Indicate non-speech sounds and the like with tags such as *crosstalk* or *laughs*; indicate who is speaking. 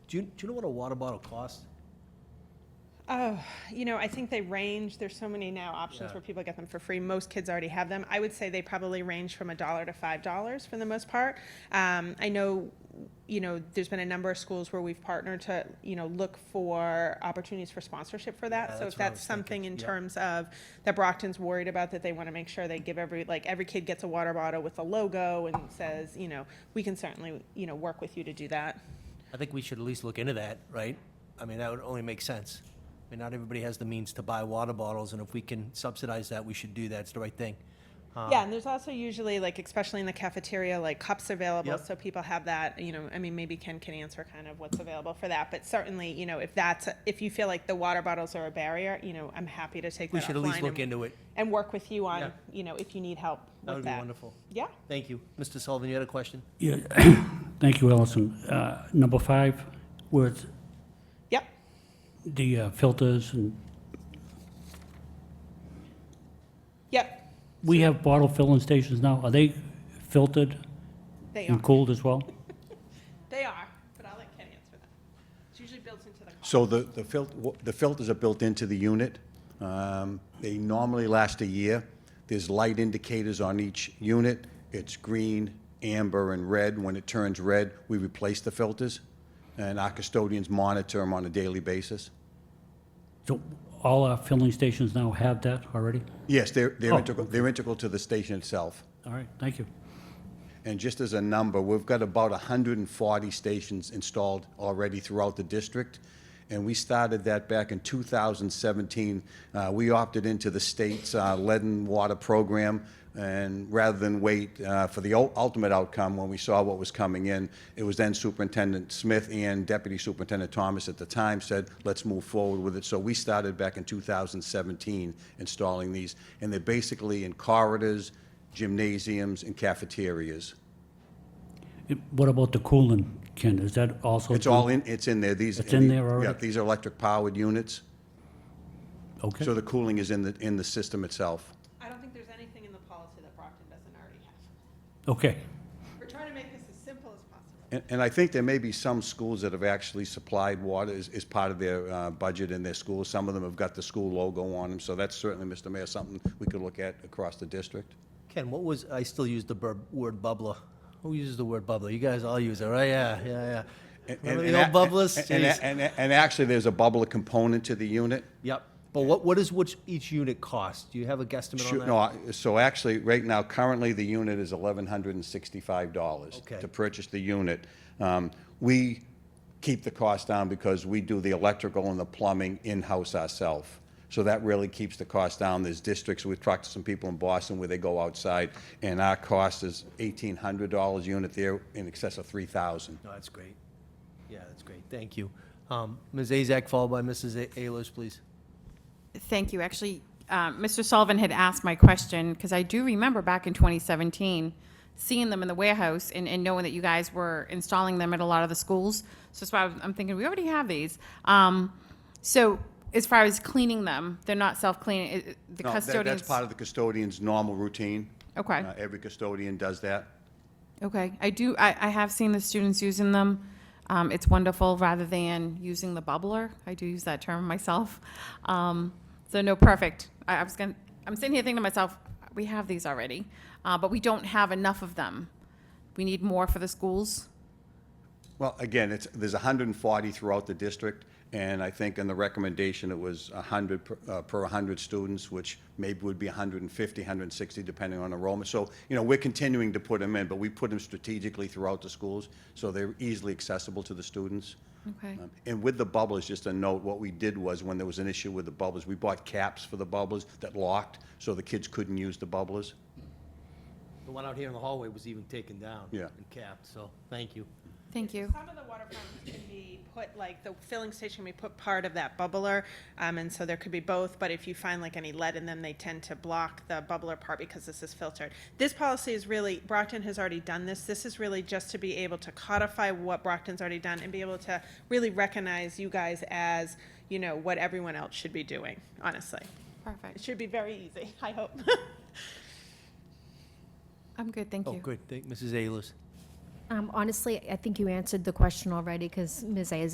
Speaker 1: Do you, do you know what a water bottle costs?
Speaker 2: Oh, you know, I think they range. There's so many now options
Speaker 1: Yeah.
Speaker 2: where people get them for free. Most kids already have them. I would say they probably range from a dollar to five dollars for the most part. Um, I know, you know, there's been a number of schools where we've partnered to, you know, look for opportunities for sponsorship for that.
Speaker 1: Yeah,
Speaker 2: so
Speaker 1: that's
Speaker 2: if
Speaker 1: what I
Speaker 2: that's
Speaker 1: was thinking.
Speaker 2: something in
Speaker 1: Yeah.
Speaker 2: terms of that Brockton's worried about, that they want to make sure they give every like every kid gets a water bottle with a logo and says, you know, we can certainly, you know, work with you to do that.
Speaker 1: I think we should at least look into that, right? I mean, that would only make sense. I mean, not everybody has the means to buy water bottles, and if we can subsidize that, we should do that. It's the right thing. Um,
Speaker 2: Yeah, and there's also usually like, especially in the cafeteria, like cups available,
Speaker 1: Yep.
Speaker 2: so people have that. You know, I mean, maybe Ken can answer kind of what's available for that, but certainly, you know, if that's if you feel like the water bottles are a barrier, you know, I'm happy to take
Speaker 1: We
Speaker 2: that
Speaker 1: should at least
Speaker 2: offline
Speaker 1: look
Speaker 2: and,
Speaker 1: into it.
Speaker 2: and work with you on,
Speaker 1: Yeah.
Speaker 2: you know, if you need help
Speaker 1: That
Speaker 2: with
Speaker 1: would be
Speaker 2: that.
Speaker 1: wonderful.
Speaker 2: Yeah.
Speaker 1: Thank you. Mr. Sullivan, you had a question?
Speaker 3: Yeah, *clears throat* thank you, Allison. Uh, Number five was
Speaker 2: Yep.
Speaker 3: the uh, filters, and
Speaker 2: Yep.
Speaker 3: we have bottle filling stations now. Are they filtered
Speaker 2: They are.
Speaker 1: Mm.
Speaker 3: and cooled as well?
Speaker 2: They are. But I'll let Ken answer that. It's usually built into the.
Speaker 4: So the, the filter, the filters are built into the unit. Um, They normally last a year. There's light indicators on each unit. It's green, amber, and red. When it turns red, we replace the filters, and our custodians monitor them on a daily basis.
Speaker 3: So all our filling stations now have that already?
Speaker 4: Yes, they're, they're
Speaker 3: Oh,
Speaker 4: integral, they're integral to the station itself.
Speaker 3: All right, thank you.
Speaker 4: And just as a number, we've got about 140 stations installed already throughout the district. And we started that back in 2017. Uh, We opted into the state's uh, lead and water program. And rather than wait uh, for the ul- ultimate outcome, when we saw what was coming in, it was then Superintendent Smith and Deputy Superintendent Thomas at the time said, let's move forward with it. So we started back in 2017 installing these. And they're basically in corridors, gymnasiums and cafeterias.
Speaker 3: It- What about the cooling, Ken? Is that also?
Speaker 4: It's all in, it's in there, these.
Speaker 3: Oh, It's in there already?
Speaker 4: Yeah, these are electric-powered units,
Speaker 3: Okay,
Speaker 4: so the cooling is in the, in the system itself.
Speaker 2: I don't think there's anything in the policy that Brockton doesn't already have.
Speaker 3: okay.
Speaker 2: We're trying to make this as simple as possible.
Speaker 4: And, and I think there may be some schools that have actually supplied water as, as part of their uh, budget in their schools. Some of them have got the school logo on them, so that's certainly, Mr. Mayor, something we could look at across the district.
Speaker 1: Ken, what was, I still use the bur- word bubbler. Who uses the word bubbler? You guys all use it, right? Yeah, yeah, yeah.
Speaker 4: And-
Speaker 1: Remember
Speaker 4: and-
Speaker 1: the old bubblers?
Speaker 4: And,
Speaker 1: Jeez.
Speaker 4: and, and- and actually, there's a bubbler component to the unit.
Speaker 1: Yep. But what, what does which, each unit cost? Do you have a guesstimate on
Speaker 4: Sure,
Speaker 1: that?
Speaker 4: no, I- so actually, right now, currently, the unit is eleven hundred and sixty-five dollars
Speaker 1: Okay.
Speaker 4: to purchase the unit. Um, We keep the cost down because we do the electrical and the plumbing in-house ourselves. So that really keeps the cost down. There's districts, we've talked to some people in Boston where they go outside, and our cost is eighteen hundred dollars unit there, in excess of three thousand.
Speaker 1: No, that's great. Yeah, that's great. Thank you. Um, Ms. Azak, followed by Mrs. A- Ayers, please.
Speaker 5: Thank you. Actually, uh, Mr. Sullivan had asked my question, because I do remember back in 2017, seeing them in the warehouse and, and knowing that you guys were installing them at a lot of the schools. So that's why I was- I'm thinking, we already have these. Um, So as far as cleaning them, they're not self-cleaning, it- it- the custodians?
Speaker 4: That's part of the custodian's normal routine.
Speaker 5: Okay.
Speaker 4: Uh, Every custodian does that.
Speaker 5: Okay, I do, I, I have seen the students using them. Um, it's wonderful, rather than using the bubbler. I do use that term *laughs* myself. Um, so no, perfect. I, I was gonna, I'm sitting here thinking to myself, we have these already, uh, but we don't have enough of them. We need more for the schools.
Speaker 4: Well, again, it's, there's 140 throughout the district, and I think in the recommendation, it was 100 per- uh, per 100 students, which maybe would be 150, 160, depending on enrollment. So, you know, we're continuing to put them in, but we put them strategically throughout the schools, so they're easily accessible to the students.
Speaker 5: Okay.
Speaker 4: Um, And with the bubblers, just a note, what we did was, when there was an issue with the bubblers, we bought caps for the bubblers that locked, so the kids couldn't use the bubblers.
Speaker 1: The one out here in the hallway was even taken down.
Speaker 4: Yeah.
Speaker 1: And capped, so thank you.
Speaker 5: Thank you.
Speaker 2: Some of the water fountains can be put, like, the filling station, we put part of that bubbler, um, and so there could be both, but if you find like any lead in them, they tend to block the bubbler part because this is filtered. This policy is really, Brockton has already done this, this is really just to be able to codify what Brockton's already done and be able to really recognize you guys as, you know, what everyone else should be doing, honestly. It
Speaker 5: Perfect.
Speaker 2: should be very easy, I hope. *laughs*
Speaker 5: I'm good, thank
Speaker 1: Oh,
Speaker 5: you.
Speaker 1: good. Thank Mrs. Ayers.
Speaker 6: Um, Honestly, I think you answered the question already because Ms. Isaac